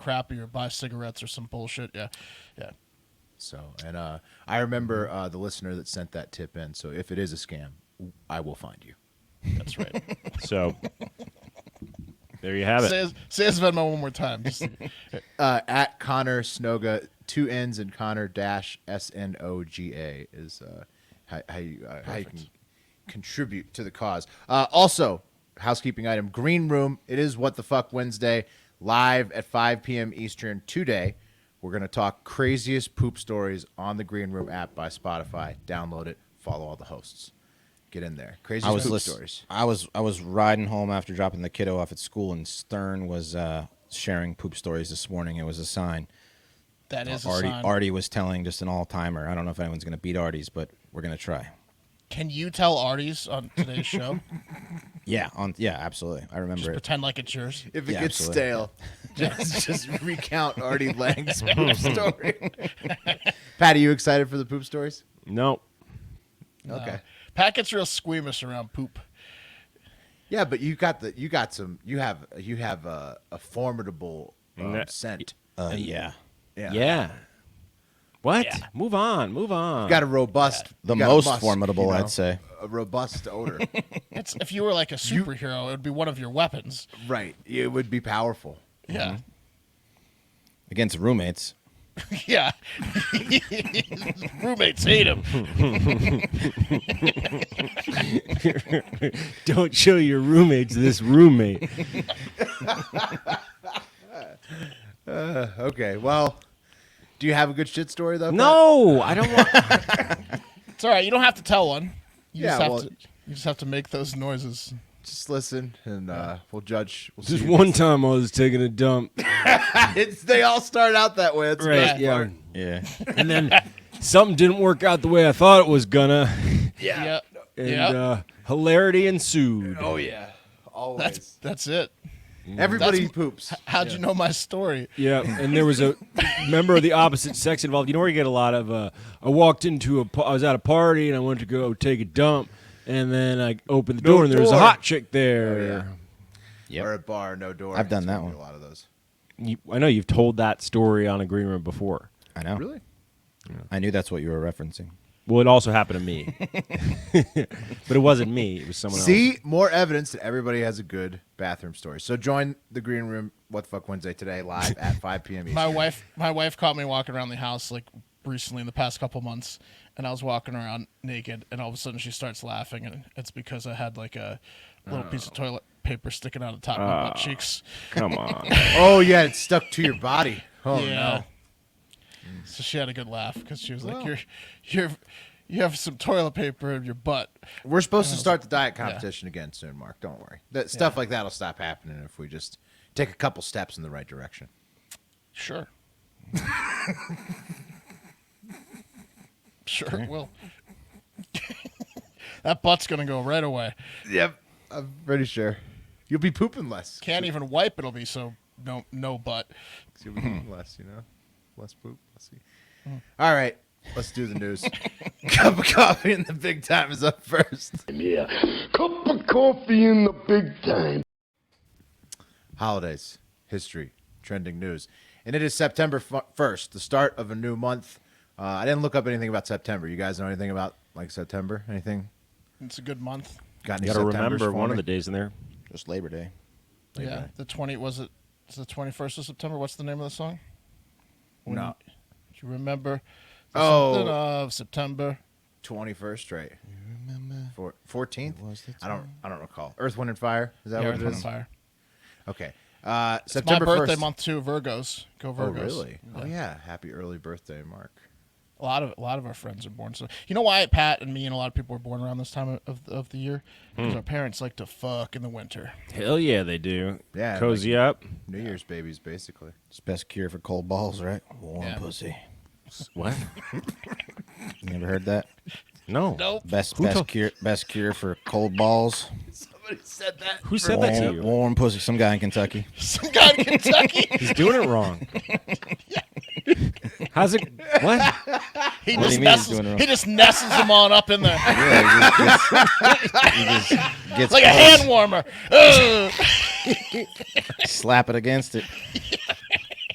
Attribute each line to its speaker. Speaker 1: crappy or buy cigarettes or some bullshit. Yeah, yeah.
Speaker 2: So, and uh, I remember uh, the listener that sent that tip in. So, if it is a scam, I will find you.
Speaker 1: That's right.
Speaker 3: So there you have it.
Speaker 1: say, his, say his Venmo one more time. Just,
Speaker 2: Uh, at Connor Snoga, two N's and Connor dash S N O G A is uh, how, how, you, uh, how you can contribute to the cause. Uh, also, housekeeping item Green Room. It is What the Fuck Wednesday, live at 5 p.m. Eastern today. We're going to talk craziest poop stories on the Green Room app by Spotify. Download it, follow all the hosts. Get in there. Craziest
Speaker 4: I was
Speaker 2: poop
Speaker 4: lis-
Speaker 2: stories.
Speaker 4: I was I was riding home after dropping the kiddo off at school, and Stern was uh, sharing poop stories this morning. It was a sign.
Speaker 1: that is a
Speaker 4: Artie
Speaker 1: sign.
Speaker 4: Artie was telling just an all timer. I don't know if anyone's gonna beat Artie's, but we're gonna try.
Speaker 1: Can you tell Artie's on today's show?
Speaker 4: Yeah, on yeah, absolutely. I remember
Speaker 1: Just
Speaker 4: it.
Speaker 1: pretend like it's yours.
Speaker 2: If it
Speaker 4: Yeah,
Speaker 2: gets
Speaker 4: absolutely.
Speaker 2: stale, just just recount Artie Lang's poop story. Pat, are you excited for the poop stories?
Speaker 3: no.
Speaker 2: Okay.
Speaker 1: Pat gets real squeamish around poop.
Speaker 2: Yeah, but you got the you got some you have you have a, a formidable um,
Speaker 3: Yeah.
Speaker 2: scent.
Speaker 4: Uh, yeah,
Speaker 2: Yeah.
Speaker 3: Yeah. What? Move on. Move on.
Speaker 2: You got a robust
Speaker 4: the
Speaker 2: you got a
Speaker 4: most
Speaker 2: musk,
Speaker 4: formidable,
Speaker 2: you know,
Speaker 4: I'd say.
Speaker 2: A robust odor.
Speaker 1: It's if you were like a superhero, it would be one of your weapons.
Speaker 2: right. It would be powerful.
Speaker 1: Yeah,
Speaker 4: Against roommates.
Speaker 1: yeah. Roommates hate him.
Speaker 3: Don't show your roommates this roommate.
Speaker 2: Okay. Well, do you have a good shit story though? Pat?
Speaker 3: no, I don't want.
Speaker 1: It's all right. You don't have to tell one. You
Speaker 2: Yeah,
Speaker 1: just have
Speaker 2: well-
Speaker 1: to. You just have to make those noises.
Speaker 2: Just listen and uh, we'll judge. We'll
Speaker 3: Just
Speaker 2: see.
Speaker 3: one time I was taking a dump.
Speaker 2: It's, they all start out that way. That's
Speaker 3: Right.
Speaker 2: right.
Speaker 3: Yeah.
Speaker 4: Yeah,
Speaker 3: And then something didn't work out the way I thought it was gonna.
Speaker 1: Yeah, yeah.
Speaker 3: And uh, hilarity ensued.
Speaker 2: Oh yeah. Always.
Speaker 1: that's that's it.
Speaker 2: Everybody
Speaker 1: That's-
Speaker 2: poops.
Speaker 1: How'd you know my story?
Speaker 3: Yeah, and there was a member of the opposite sex involved. You know where you get a lot of. Uh, I walked into a. pa- I was at a party and I went to go take a dump, and then I opened the
Speaker 2: No
Speaker 3: door and there was a
Speaker 2: door. Oh,
Speaker 3: hot chick there.
Speaker 4: Yep.
Speaker 2: Or a bar, no door.
Speaker 4: I've done
Speaker 2: It's
Speaker 4: that
Speaker 2: gonna be
Speaker 4: one.
Speaker 2: A lot of those.
Speaker 3: You, I know you've told that story on a green room before.
Speaker 4: I know.
Speaker 2: Really?
Speaker 4: I knew that's what you were referencing.
Speaker 3: Well, it also happened to me, but it wasn't me. It was someone else.
Speaker 2: See more evidence that everybody has a good bathroom story. So join the green room. What the fuck Wednesday today live at 5 p.m.
Speaker 1: My
Speaker 2: Eastern.
Speaker 1: wife, my wife caught me walking around the house like recently in the past couple months, and I was walking around naked, and all of a sudden she starts laughing, and it's because I had like a little piece of toilet paper sticking out of the top of my butt cheeks.
Speaker 3: Come on.
Speaker 2: oh yeah, it's stuck to your body. Oh
Speaker 1: yeah. So she had a good laugh because she was
Speaker 2: Well.
Speaker 1: like, "You're, you're, you have some toilet paper in your butt."
Speaker 2: no, we're supposed
Speaker 1: Oh.
Speaker 2: to start the diet competition again soon, Mark. Don't worry. That stuff like that'll stop happening if we just take a couple steps in the right direction.
Speaker 1: Sure. sure it will. that butt's gonna go right away.
Speaker 2: Yep, I'm pretty sure you'll be pooping less.
Speaker 1: Can't even wipe. It'll be so no no butt.
Speaker 2: You'll be pooping less, you know, less poop. Let's see. All right, let's do the news. Cup of coffee and the big time is up first.
Speaker 5: Yeah. Cup of coffee in the big time.
Speaker 2: holidays, history, trending news. And it is September fu- 1st, the start of a new month. Uh, I didn't look up anything about September. You guys know anything about like September? Anything?
Speaker 1: It's a good month.
Speaker 2: Got any
Speaker 3: You got to
Speaker 2: Septembers
Speaker 3: remember
Speaker 2: for
Speaker 3: one
Speaker 2: me?
Speaker 3: of the days in there.
Speaker 4: Just Labor Day.
Speaker 1: yeah, the twenty was it? It's the twenty first of September. What's the name of the song? When
Speaker 2: No.
Speaker 1: you- do you remember? the
Speaker 2: Oh.
Speaker 1: something of September.
Speaker 2: 21st, right?
Speaker 4: Remember?
Speaker 2: Four, 14th?
Speaker 4: It was the
Speaker 2: I don't I don't recall. Earth, Wind and Fire? Is that
Speaker 1: Yeah,
Speaker 2: what
Speaker 1: Earth,
Speaker 2: it
Speaker 1: Wind,
Speaker 2: is?
Speaker 1: Fire.
Speaker 2: Okay. Uh,
Speaker 1: It's my
Speaker 2: September
Speaker 1: birthday
Speaker 2: 1st.
Speaker 1: month too. Virgos, go
Speaker 2: Oh,
Speaker 1: Virgos.
Speaker 2: really? Oh yeah, happy early birthday, Mark.
Speaker 1: A lot of a lot of our friends are born. So you know why Pat and me and a lot of people are born around this time of of the year because our parents like to fuck in the winter.
Speaker 3: Hell yeah, they do.
Speaker 2: Yeah,
Speaker 3: Cozy up.
Speaker 2: New Year's babies basically.
Speaker 4: It's best cure for cold balls, right? Warm
Speaker 1: Yeah.
Speaker 4: pussy.
Speaker 3: What?
Speaker 4: You never heard that?
Speaker 3: No.
Speaker 1: Nope.
Speaker 4: Best
Speaker 3: Who
Speaker 4: best
Speaker 3: told-
Speaker 4: cure best cure for cold balls.
Speaker 2: Somebody said that.
Speaker 3: Who said that to
Speaker 4: Warm,
Speaker 3: you?
Speaker 4: warm pussy. Some guy in Kentucky.
Speaker 1: Some guy in Kentucky.
Speaker 3: He's doing it wrong. How's it? What?
Speaker 1: He just
Speaker 4: What do you mean he's
Speaker 1: nestles,
Speaker 4: doing it wrong?
Speaker 1: he just nestles them on up in there
Speaker 4: Yeah, he just gets- he just gets
Speaker 1: like a
Speaker 4: close,
Speaker 1: hand warmer. Ugh.
Speaker 4: Slap it against it.